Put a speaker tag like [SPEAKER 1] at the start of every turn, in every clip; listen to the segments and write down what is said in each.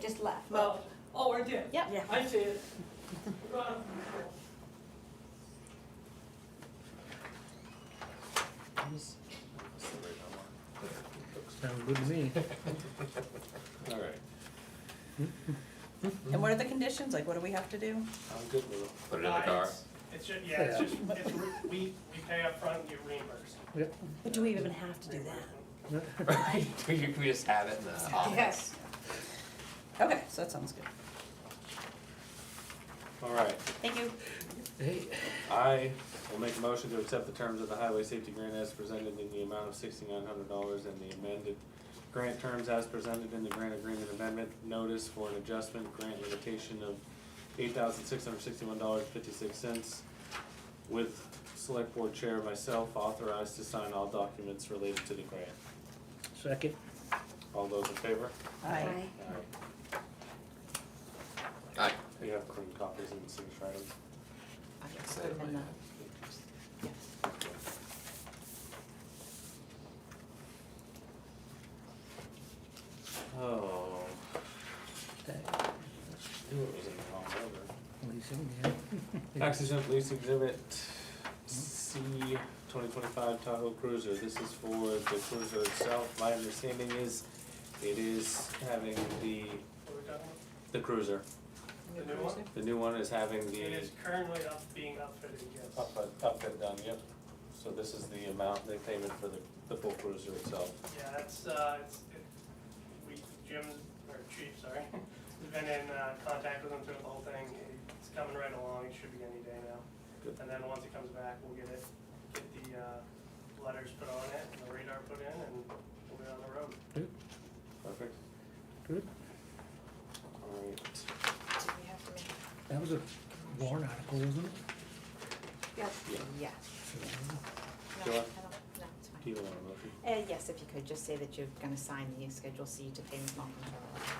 [SPEAKER 1] just left.
[SPEAKER 2] Well, oh, right there.
[SPEAKER 1] Yep.
[SPEAKER 3] Yeah.
[SPEAKER 2] I see it. Right.
[SPEAKER 4] Sounds good to me.
[SPEAKER 5] All right,
[SPEAKER 3] And what are the conditions? Like, what do we have to do?
[SPEAKER 5] I'm good with it.
[SPEAKER 6] Put it in the
[SPEAKER 2] Nah,
[SPEAKER 6] car.
[SPEAKER 2] it's- It's just, yeah, it's
[SPEAKER 4] Yeah.
[SPEAKER 2] just, it's, re- we, we pay upfront and get reimbursed.
[SPEAKER 4] Yep.
[SPEAKER 3] But do we even have to do that?
[SPEAKER 6] Right, we, we just have it in the office.
[SPEAKER 1] Yes,
[SPEAKER 3] Okay, so that sounds good.
[SPEAKER 5] All right,
[SPEAKER 1] thank you.
[SPEAKER 4] Hey,
[SPEAKER 5] I will make a motion to accept the terms of the highway safety grant as presented in the amount of sixty-nine hundred dollars and the amended grant terms as presented in the grant agreement amendment notice for an adjustment grant limitation of eight thousand six hundred sixty-one dollars fifty-six cents with select board chair myself authorized to sign all documents related to the grant.
[SPEAKER 4] second.
[SPEAKER 5] All those in favor?
[SPEAKER 3] I,
[SPEAKER 5] Aye.
[SPEAKER 6] Aye.
[SPEAKER 5] You have clean copies and signature items.
[SPEAKER 3] I guess
[SPEAKER 6] So,
[SPEAKER 3] put it in the-
[SPEAKER 5] Oh,
[SPEAKER 4] That-
[SPEAKER 5] knew it was in the wrong order.
[SPEAKER 4] Leasing, yeah.
[SPEAKER 5] Accident lease exhibit C twenty twenty-five Tahoe Cruiser, this is for the cruiser itself, my understanding is it is having the,
[SPEAKER 2] What we're talking
[SPEAKER 5] the cruiser,
[SPEAKER 2] The new one?
[SPEAKER 5] the new one is having
[SPEAKER 2] about.
[SPEAKER 5] the.
[SPEAKER 2] It is currently up, being outfitted, yes.
[SPEAKER 5] Outfit, outfit done, yep, so this is the amount they paid for the, the full cruiser itself.
[SPEAKER 2] Yeah, that's, uh, it's, it, we, Jim, or Chief, sorry, we've been in, uh, contact with him through the whole thing. It's coming right along, it should be any day now.
[SPEAKER 5] Good.
[SPEAKER 2] And then once it comes back, we'll get it, get the, uh, letters put on it, and the radar put in, and we'll be on the road.
[SPEAKER 5] Perfect.
[SPEAKER 4] Good.
[SPEAKER 5] Alright,
[SPEAKER 4] That was a warrant article, wasn't it?
[SPEAKER 1] Yep,
[SPEAKER 5] Yeah.
[SPEAKER 1] yeah.
[SPEAKER 5] Do
[SPEAKER 1] No,
[SPEAKER 5] I-
[SPEAKER 1] I don't, no, it's fine.
[SPEAKER 5] do you want a motion?
[SPEAKER 1] Uh, yes, if you could, just say that you're gonna sign the Schedule C to payment non-control.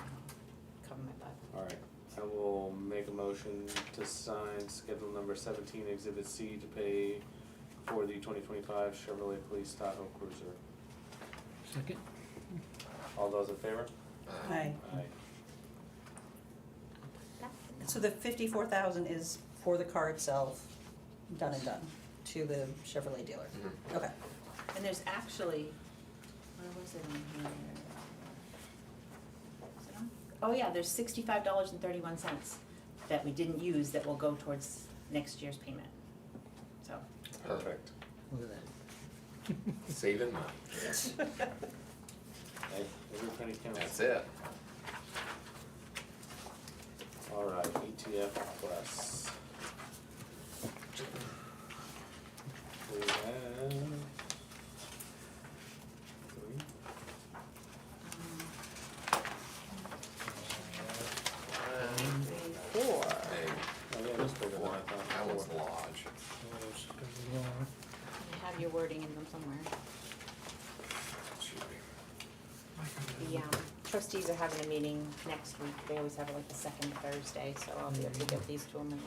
[SPEAKER 1] Cover my butt.
[SPEAKER 5] Alright, I will make a motion to sign schedule number seventeen, exhibit C to pay for the twenty twenty-five Chevrolet Police Tahoe Cruiser.
[SPEAKER 4] Second.
[SPEAKER 5] All those in favor?
[SPEAKER 3] Aye.
[SPEAKER 5] Aye.
[SPEAKER 1] That- no.
[SPEAKER 3] So the fifty-four thousand is for the car itself, done and done, to the Chevrolet dealer.
[SPEAKER 6] Mm-hmm.
[SPEAKER 3] Okay.
[SPEAKER 1] And there's actually, where was it on here? Is it on? Oh, yeah, there's sixty-five dollars and thirty-one cents that we didn't use that will go towards next year's payment. So,
[SPEAKER 5] Perfect.
[SPEAKER 4] Look at that.
[SPEAKER 6] Saving money.
[SPEAKER 5] Aye. Every penny counts.
[SPEAKER 6] That's it.
[SPEAKER 5] Alright, ETF E plus. We have three.
[SPEAKER 1] four.
[SPEAKER 6] Hey,
[SPEAKER 5] Oh, yeah, that's bigger than I
[SPEAKER 6] one, that
[SPEAKER 5] thought.
[SPEAKER 6] one's lodge.
[SPEAKER 4] Those go along.
[SPEAKER 1] You have your wording in them somewhere.
[SPEAKER 6] Shoot.
[SPEAKER 1] The um, trustees are having a meeting next week. They always have it like the second Thursday, so I'll be able to get these to them. and-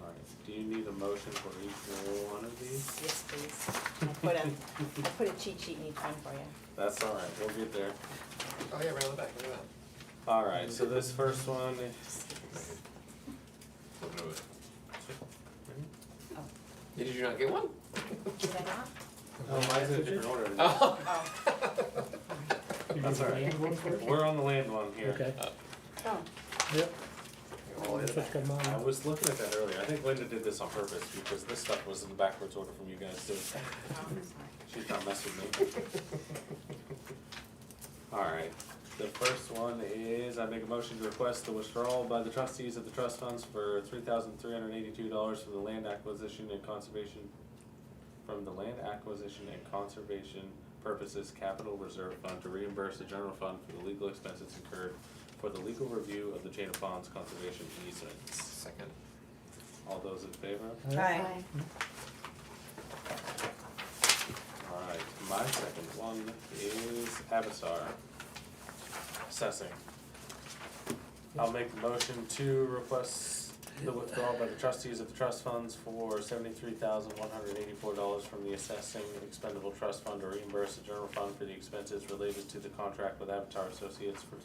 [SPEAKER 5] Alright, do you need a motion for each one of these?
[SPEAKER 1] Yes, please. I put a, I put a cheat sheet in each one for you.
[SPEAKER 5] That's alright, we'll get there.
[SPEAKER 6] Oh, yeah, right on the back, look at
[SPEAKER 5] Alright, so this first one,
[SPEAKER 6] that. Look at it. Did you not get one?
[SPEAKER 1] Did I not?
[SPEAKER 5] oh, mine's in a different order. than yours.
[SPEAKER 6] Oh.
[SPEAKER 4] You
[SPEAKER 5] That's
[SPEAKER 4] do the
[SPEAKER 5] all right.
[SPEAKER 4] land one first?
[SPEAKER 5] We're on the land one here.
[SPEAKER 4] Okay,
[SPEAKER 1] Oh,
[SPEAKER 4] yep.
[SPEAKER 6] All
[SPEAKER 4] That's
[SPEAKER 6] in.
[SPEAKER 4] what's got
[SPEAKER 5] I
[SPEAKER 4] mine.
[SPEAKER 5] was looking at that earlier, I think Linda did this on purpose, because this stuff was in backwards order from you guys too.
[SPEAKER 1] oh, I'm sorry.
[SPEAKER 5] She's not messing with me. Alright, the first one is, I make a motion to request the withdrawal by the trustees of the trust funds for three thousand three hundred eighty-two dollars from the land acquisition and conservation, from the land acquisition and conservation purposes capital reserve fund to reimburse the general fund for the legal expenses incurred for the legal review of the chain of ponds conservation easements.
[SPEAKER 6] Second.
[SPEAKER 5] All those in favor?
[SPEAKER 3] Aye.
[SPEAKER 5] Alright, my second one is Avatar. Assessing. I'll make the motion to request the withdrawal by the trustees of the trust funds for seventy-three thousand one hundred eighty-four dollars from the assessing expendable trust fund to reimburse the general fund for the expenses related to the contract with Avatar Associates for